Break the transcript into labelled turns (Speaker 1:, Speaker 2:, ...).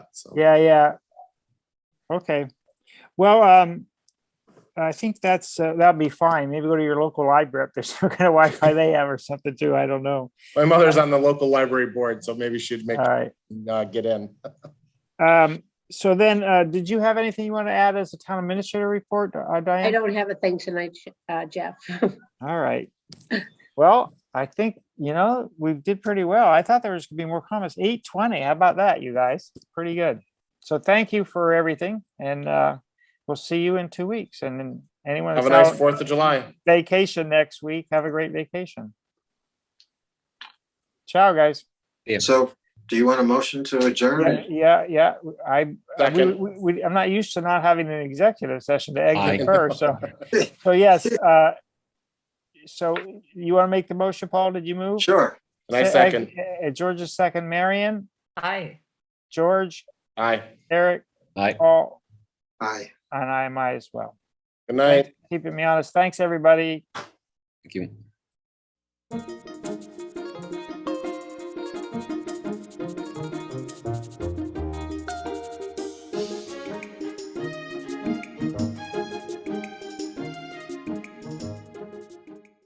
Speaker 1: So
Speaker 2: Yeah, yeah. Okay, well, um, I think that's, uh, that'll be fine. Maybe go to your local library if there's some kind of Wi-Fi they have or something too. I don't know.
Speaker 1: my mother's on the local library board, so maybe she'd make
Speaker 2: All right.
Speaker 1: uh, get in.
Speaker 2: Um, so then, uh, did you have anything you want to add as a town administrator report, uh,
Speaker 3: I
Speaker 2: Diane?
Speaker 3: don't have a thing tonight, uh, Jeff.
Speaker 2: All right. Well, I think, you know, we did pretty well. I thought there was gonna be more comments. Eight twenty, how about that, you guys? Pretty good. So thank you for everything and, uh, we'll see you in two weeks and then anyone
Speaker 1: Have
Speaker 2: that's
Speaker 1: a nice
Speaker 2: out
Speaker 1: Fourth of July.
Speaker 2: vacation next week, have a great vacation. Ciao, guys.
Speaker 4: So do you want a motion to
Speaker 2: Yeah,
Speaker 4: adjourn?
Speaker 2: yeah, yeah. I, I- we,
Speaker 1: Second.
Speaker 2: we, we- I'm not used to not having an executive session to
Speaker 5: I-
Speaker 2: exit first, so, so yes, uh, so you want to make the motion, Paul? Did you move?
Speaker 4: Sure.
Speaker 1: And I
Speaker 2: Se-
Speaker 1: second.
Speaker 2: uh, George's second, Marion,
Speaker 3: Hi.
Speaker 2: George,
Speaker 1: Aye.
Speaker 2: Eric,
Speaker 5: Aye.
Speaker 2: Paul,
Speaker 4: Aye.
Speaker 2: and I might as well.
Speaker 1: Good night.
Speaker 2: Keeping me honest. Thanks, everybody.
Speaker 5: Thank you.